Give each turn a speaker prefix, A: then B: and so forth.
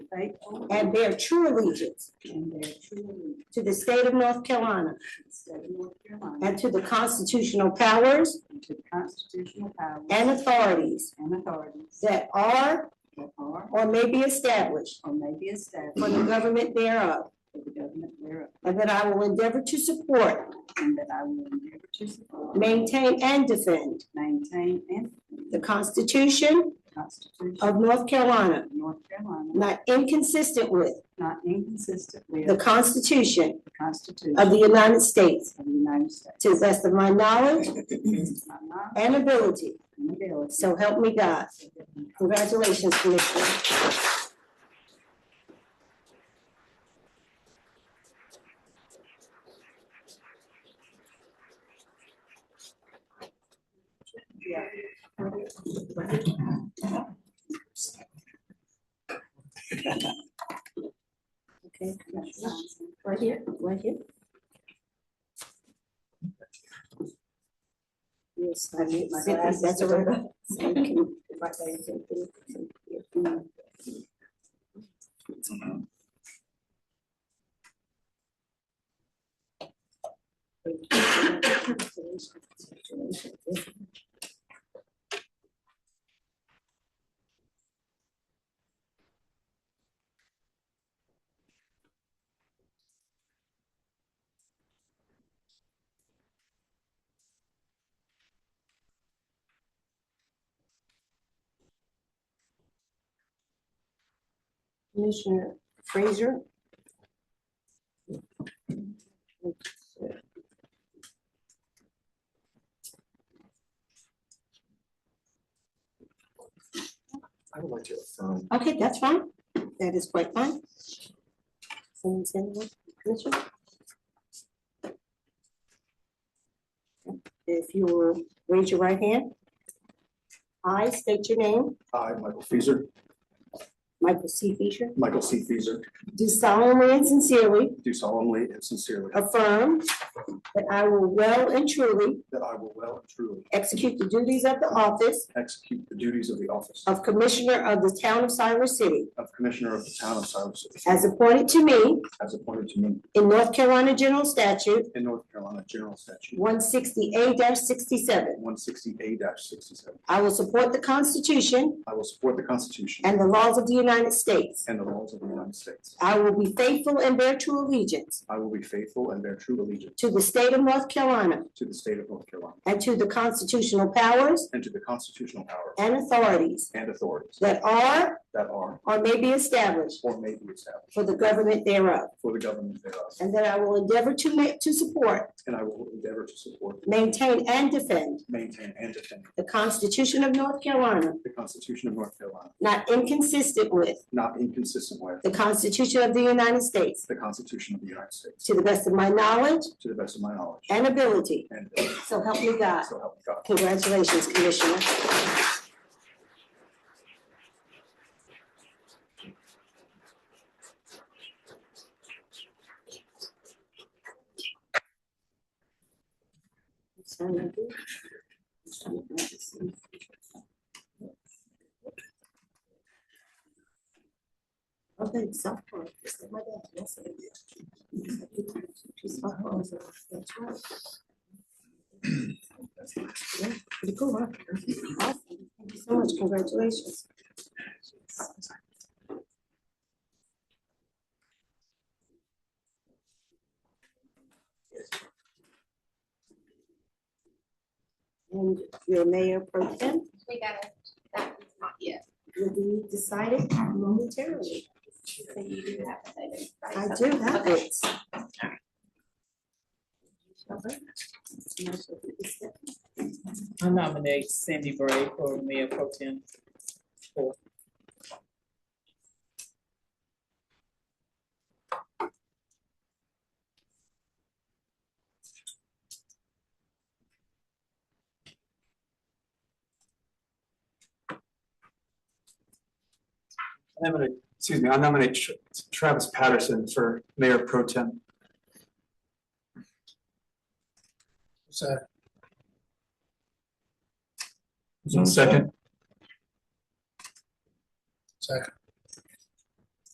A: right?
B: and bear true allegiance
A: And bear true allegiance
B: to the state of North Carolina
A: to the state of North Carolina
B: and to the constitutional powers
A: and to the constitutional powers
B: and authorities
A: and authorities
B: that are
A: that are
B: or may be established
A: or may be established
B: for the government thereof,
A: for the government thereof,
B: and that I will endeavor to support,
A: and that I will endeavor to support,
B: maintain, and defend
A: maintain, and defend
B: the Constitution
A: the Constitution
B: of North Carolina,
A: of North Carolina,
B: not inconsistent with
A: not inconsistent with
B: the
A: the
B: Constitution
A: Constitution
B: of
A: of
B: the United States,
A: the United States.
B: to the best of my knowledge
A: By my
B: and ability.
A: ability.
B: So help me God. Congratulations, Commissioner.
A: Yeah.
B: Okay, right here, right here. Yes, I need my glasses. That's all right. So you can- right there, you can- Commissioner Frazier.
C: I would like to affirm,
B: Okay, that's fine. That is quite fine. Someone send one, Commissioner? If you will raise your right hand. I state your name,
C: I, Michael Feaser,
B: Michael C. Fisher,
C: Michael C. Feaser,
B: do solemnly and sincerely
C: do solemnly and sincerely
B: affirm that I will well and truly
C: that I will well and truly
B: execute the duties of the office
C: execute the duties of the office
B: of Commissioner of the Town of Cyrus City
C: of Commissioner of the Town of Cyrus City,
B: as appointed to me
C: as appointed to me
B: in North Carolina General Statute
C: in North Carolina General Statute
B: one sixty-eight sixty-seven.
C: one sixty-eight sixty-seven.
B: I will support the Constitution
C: I will support the Constitution
B: and the laws of the United States.
C: and the laws of the United States.
B: I will be faithful and bear true allegiance
C: I will be faithful and bear true allegiance
B: to the state of North Carolina
C: to the state of North Carolina
B: and to the constitutional powers
C: and to the constitutional powers
B: and authorities
C: and authorities
B: that are
C: that are
B: or may be established
C: or may be established
B: for the government thereof,
C: for the government thereof,
B: and that I will endeavor to ma- to support,
C: and I will endeavor to support,
B: maintain, and defend
C: maintain, and defend
B: the Constitution of North Carolina,
C: The Constitution of North Carolina,
B: not inconsistent with
C: not inconsistent with
B: the Constitution of the United States,
C: the Constitution of the United States,
B: to the best of my knowledge
C: to the best of my knowledge.
B: and ability.
C: And uh,
B: So help me God.
C: so help me God.
B: Congratulations, Commissioner. Okay, so far, it's my dad, that's it. It's my home, so that's right. Yeah, Pretty cool, huh? Awesome. Thank you so much. Congratulations. And your mayor pro tem
D: We got it. That is not yet.
B: will be decided momentarily.
D: So you do have to identify
B: I do
D: something.
B: have
D: Okay.
B: it.
E: I nominate Cindy Bray for mayor pro tem.
F: I nominate, excuse me, I nominate Tra- Travis Patterson for mayor pro tem. Second. Second.